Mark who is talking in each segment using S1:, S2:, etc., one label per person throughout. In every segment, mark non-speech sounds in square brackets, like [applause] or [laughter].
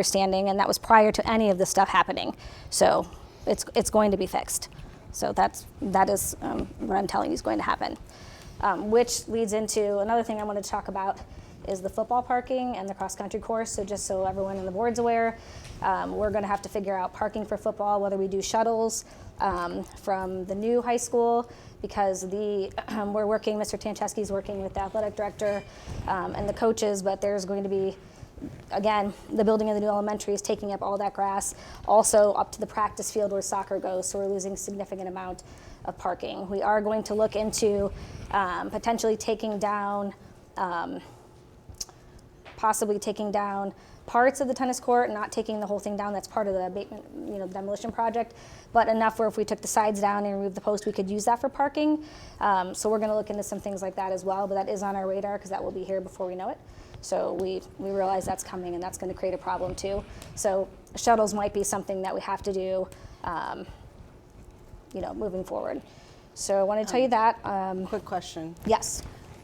S1: understanding, and that was prior to any of this stuff happening. So it's, it's going to be fixed. So that's, that is um, what I'm telling you is going to happen. Um, which leads into another thing I want to talk about is the football parking and the cross country course. So just so everyone on the board's aware, um, we're going to have to figure out parking for football, whether we do shuttles um, from the new high school because the [clears throat] we're working. Mr. Tancheski's working with the athletic director um, and the coaches, but there's going to be again, the building of the new elementary is taking up all that grass, also up to the practice field where soccer goes, so we're losing significant amount of parking. We are going to look into um, potentially taking down, um, possibly taking down parts of the tennis court, not taking the whole thing down, that's part of the abatement, you know, demolition project, but enough where if we took the sides down and removed the post, we could use that for parking. Um, So we're gonna look into some things like that as well, but that is on our radar, because that will be here before we know it. So we, we realize that's coming and that's going to create a problem too. So shuttles might be something that we have to do, um, you know, moving forward. So I want to tell you that. Um,
S2: Quick question.
S1: yes.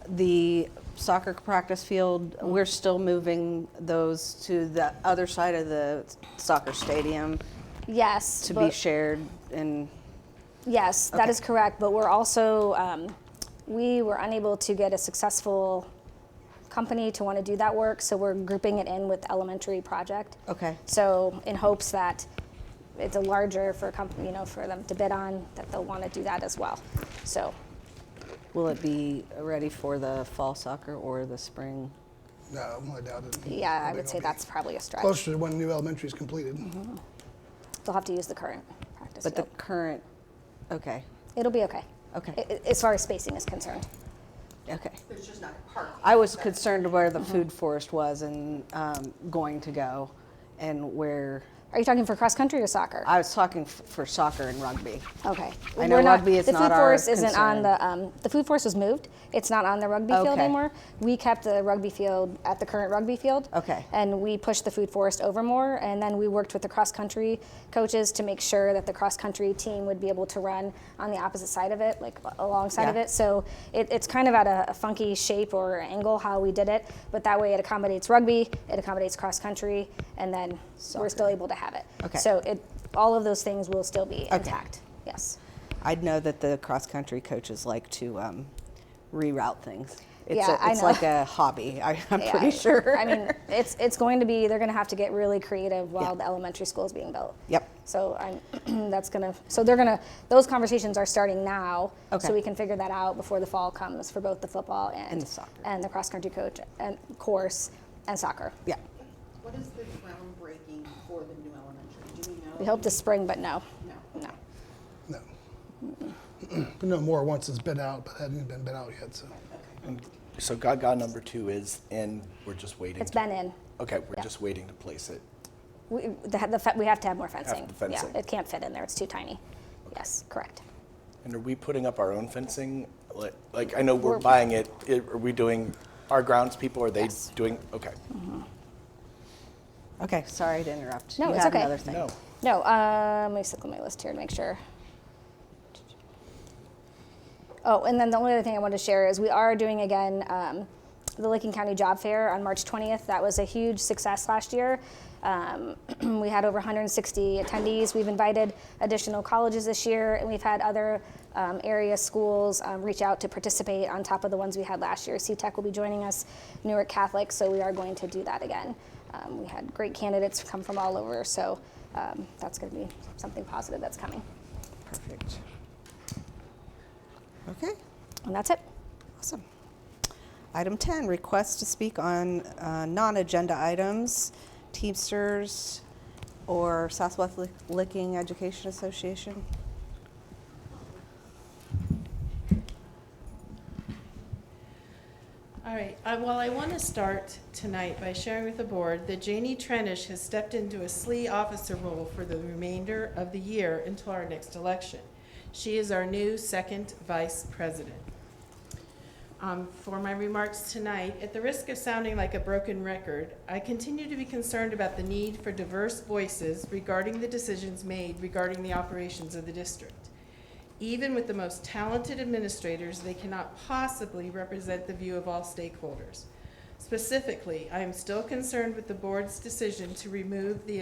S2: The soccer practice field, we're still moving those to the other side of the soccer stadium
S1: Yes.
S2: to be
S1: but-
S2: shared and,
S1: Yes, that is correct. But we're also, um, we were unable to get a successful company to want to do that work. So we're grouping it in with elementary project.
S2: okay.
S1: So in hopes that it's a larger for a company, you know, for them to bid on, that they'll want to do that as well. So
S2: Will it be ready for the fall soccer or the spring?
S3: No, I doubt it.
S1: yeah, I
S3: They're
S1: would say Mm-hmm.
S3: gonna be
S1: that's probably a stretch.
S3: Closer to when new elementary is completed.
S1: They'll have to use the current practice
S2: But the
S1: field.
S2: current, okay,
S1: It'll be okay.
S2: Okay.
S1: I- I- As far as spacing is concerned.
S2: okay.
S4: There's just not parking.
S2: I was concerned where the food forest was and um, going to go and where,
S1: Are you talking for cross country or soccer?
S2: I was talking f- for soccer and rugby.
S1: Okay.
S2: I know
S1: We're
S2: rugby is
S1: the
S2: not
S1: food
S2: our
S1: force isn't on
S2: concern.
S1: the um, the food force was moved. It's not on the rugby field
S2: Okay.
S1: anymore. We kept the rugby field at the current rugby field.
S2: Okay.
S1: And we pushed the food forest over more, and then we worked with the cross country coaches to make sure that the cross country team would be able to run on the opposite side of it, like alongside of
S2: Yeah.
S1: it. So it, it's kind of at a, a funky shape or angle how we did it, but that way it accommodates rugby, it accommodates cross country, and then we're still able to have it.
S2: Okay.
S1: So it all of those things will still be intact. Yes.
S2: I'd know that the cross country coaches like to um, reroute things. It's
S1: Yeah,
S2: a,
S1: I
S2: it's
S1: know.
S2: like a hobby. [laughs] I, I'm
S1: Yeah,
S2: pretty sure.
S1: I mean, it's it's going to be. They're going to have to get really creative while the elementary school is being built.
S2: Yep.
S1: So I'm. [clears throat] that's gonna. So they're gonna. Those conversations are starting now.
S2: Okay.
S1: So we can figure that out before the fall comes for both the football and,
S2: And the soccer.
S1: and the cross country coach and course and soccer.
S2: yeah.
S4: What is the groundbreaking for the new elementary? Do we know?
S1: We hope this spring, but no.
S4: No.
S1: No.
S3: No. [clears throat] But no more once it's been out, but hadn't been been out yet, so.
S5: So Gaga number two is in. We're just waiting.
S1: It's
S5: to-
S1: been in.
S5: Okay, we're
S1: yeah.
S5: just waiting to place it.
S1: We, the, the, fe- we have to have more fencing.
S5: the fencing.
S1: Yeah, it can't fit in there. It's too tiny. Yes, correct.
S5: And are we putting up our own fencing? Like, like I know we're, buying it. it. Are we doing our grounds people? Are they
S1: Yes.
S5: doing? Okay.
S2: Okay. Sorry to interrupt.
S1: No,
S2: you
S1: it's
S2: had
S1: okay.
S2: another thing.
S5: No.
S1: No, um, let me look at my list here to make sure. Oh, and then the only other thing I wanted to share is we are doing again um, the Licking County Job Fair on March 20th. That was a huge success last year. Um, [clears throat] we had over 160 attendees. We've invited additional colleges this year, and we've had other um, area schools um, reach out to participate on top of the ones we had last year. CTEC will be joining us, Newark Catholic, so we are going to do that again. Um, we had great candidates come from all over, so um, that's going to be something positive that's coming.
S2: Perfect. Okay.
S1: And that's it.
S2: Awesome. Item 10, request to speak on uh, non-agenda items, Teamsters or Southwest Lick- Licking Education Association.
S6: All right, uh, well, I want to start tonight by sharing with the board that Janie Trenish has stepped into a SLE officer role for the remainder of the year until our next election. She is our new second vice president. Um, For my remarks tonight, at the risk of sounding like a broken record, I continue to be concerned about the need for diverse voices regarding the decisions made regarding the operations of the district. Even with the most talented administrators, they cannot possibly represent the view of all stakeholders. Specifically, I am still concerned with the board's decision to remove the